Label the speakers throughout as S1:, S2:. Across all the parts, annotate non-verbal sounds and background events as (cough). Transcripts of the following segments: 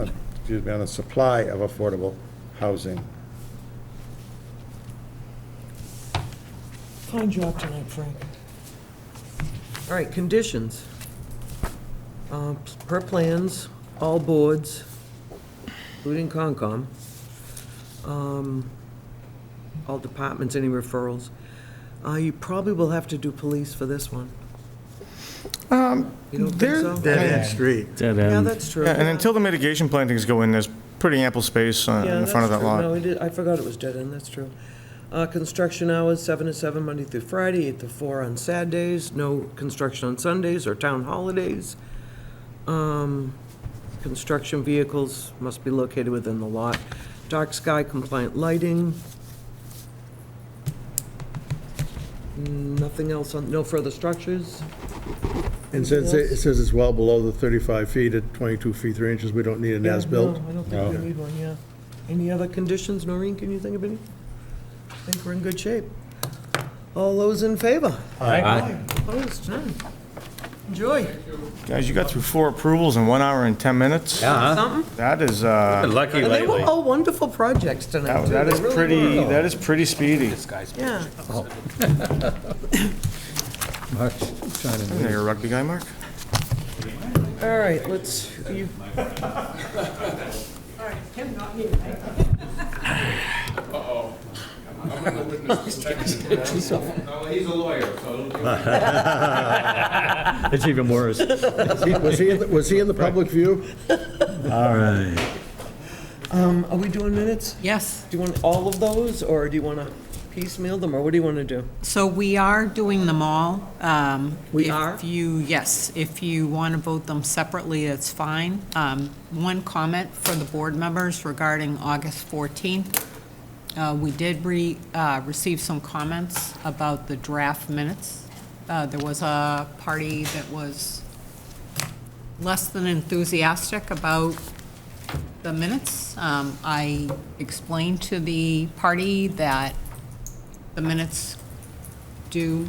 S1: uh, excuse me, on the supply of affordable housing.
S2: Fine job tonight, Frank.
S3: All right, conditions. Uh, Per plans, all boards, including Concom, um, all departments, any referrals. Uh, You probably will have to do police for this one. You don't think
S4: They're-
S3: so?
S4: Dead-end street.
S5: Dead
S3: Yeah,
S5: end.
S3: that's true.
S4: Um, Yeah, And until the mitigation plantings go in, there's pretty ample space on-
S3: Yeah,
S4: in the front of
S3: that's
S4: that
S3: true. No,
S4: lot.
S3: it is- I forgot it was dead end, that's true. Uh, Construction hours, seven to seven, Monday through Friday, eight to four on Saturdays, no construction on Sundays or town holidays. Um, Construction vehicles must be located within the lot. Dark sky compliant lighting. Nothing else on, no further structures?
S6: And since it it says it's well below the 35 feet at 22 feet 3 inches, we don't need an
S3: Yeah,
S6: as-built.
S3: No, I don't
S6: Oh.
S3: think we need one, yeah. Any other conditions, Noreen, can you think of any? I think we're in good shape. All those in favor?
S5: Aye.
S3: Opposed, none. Enjoy.
S4: Guys, you got through four approvals in one hour and 10 minutes?
S5: Yeah,
S3: Something?
S4: That is, uh,
S5: lucky
S3: And they were
S5: lately.
S3: all wonderful projects tonight, too.
S4: that Oh, that
S3: They
S4: is
S3: really
S4: pretty,
S3: were.
S4: that is pretty speedy.
S3: Yeah.
S4: You're a rugby guy, Mark?
S3: All right, let's,
S4: (laughs)
S3: you,
S4: (laughs)
S7: He's a lawyer, so.
S5: It's even worse.
S6: Was he, in the- was he in the public view?
S5: All right.
S3: um, are we doing minutes?
S8: Yes,
S3: Do you want all of those, or do you want to piecemeal them, or what do you want to do?
S8: so we are doing them all. Um,
S3: We are?
S8: If you, yes, if you want to vote them separately, that's fine. Um, One comment for the board members regarding August 14th. Uh, We did re, uh, receive some comments about the draft minutes. Uh, There was a party that was less than enthusiastic about the minutes. Um, I explained to the party that the minutes do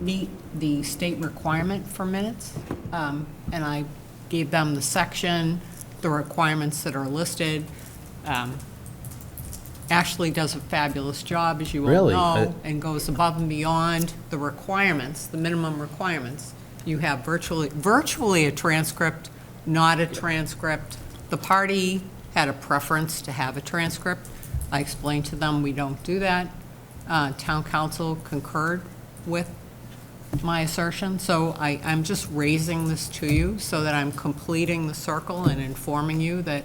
S8: meet the state requirement for minutes, um, and I gave them the section, the requirements that are listed. Um, Ashley does a fabulous job, as you all
S5: Really?
S8: know, and goes above and beyond the requirements, the minimum requirements. You have virtually, virtually a transcript, not a transcript. The party had a preference to have a transcript. I explained to them, we don't do that. Uh, Town council concurred with my assertion, so I, I'm just raising this to you so that I'm completing the circle and informing you that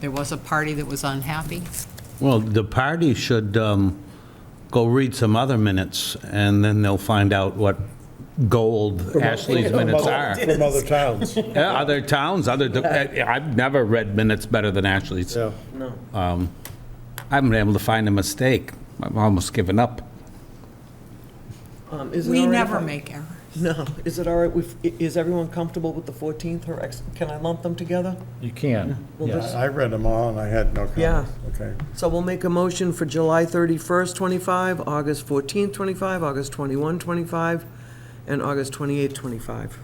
S8: there was a party that was unhappy.
S9: Well, the party should um, go read some other minutes, and then they'll find out what gold Ashley's minutes are.
S6: From other
S1: (laughs)
S6: towns.
S9: Yeah, Other towns, other, de- I- I've never read minutes better than Ashley's.
S6: Yeah.
S9: I haven't been able to find a mistake. I've almost given up.
S3: Um, is it
S8: We
S3: all right if
S8: never
S3: I-
S8: make errors.
S3: No, is it all right, with- i- is everyone comfortable with the 14th, or ex- can I lump them together?
S5: You can.
S3: Well,
S5: Yes.
S3: this-
S1: I read them all and I had no comments.
S3: Yeah.
S1: Okay.
S3: So we'll make a motion for July 31st, 25, August 14th, 25, August 21, 25, and August 28, 25.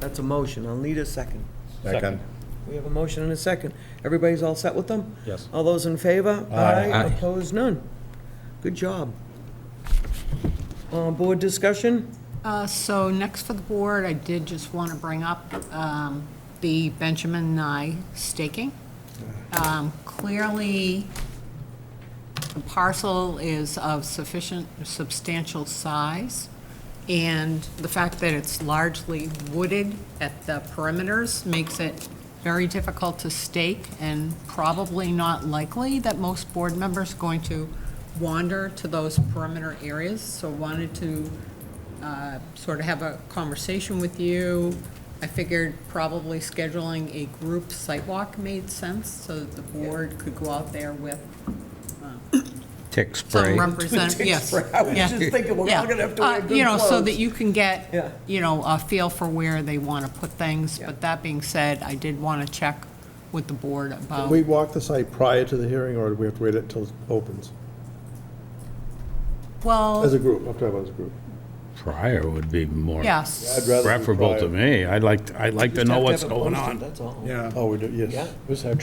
S3: That's a motion. I'll need a second.
S1: Second.
S3: We have a motion and a second. Everybody's all set with them?
S5: Yes.
S3: All those in favor?
S9: Aye.
S3: Opposed? None. Good job. Uh, Board discussion?
S8: Uh, So next for the board, I did just want to bring up um, the Benjamin Nye staking. Um, Clearly, the parcel is of sufficient, substantial size, and the fact that it's largely wooded at the perimeters makes it very difficult to stake and probably not likely that most board members are going to wander to those perimeter areas. So wanted to uh, sort of have a conversation with you. I figured probably scheduling a group site walk made sense so that the board could go out there with
S9: Tick
S8: some
S9: spray.
S8: represent, yes. I was
S3: just thinking we're all gonna have to wear good
S8: You know, so
S3: clothes.
S8: that you can
S3: Yeah.
S8: get, you know, a feel for where they want to put things. But that being said, I did want to check with the board
S6: Can
S8: about,
S6: we walk the site prior to the hearing, or do we have to wait until it opens? As
S8: well,
S6: a group, I'm talking about as a group.
S9: Prior would be more
S8: yes.
S6: I'd rather do
S9: preferable to
S6: prior.
S9: me. I'd like, I'd like to know
S3: Have to
S9: what's
S3: have it
S9: going
S3: posted,
S9: on.
S3: That's all.
S1: Yeah.
S6: Oh, we do, yes.
S3: Yeah.
S6: This is how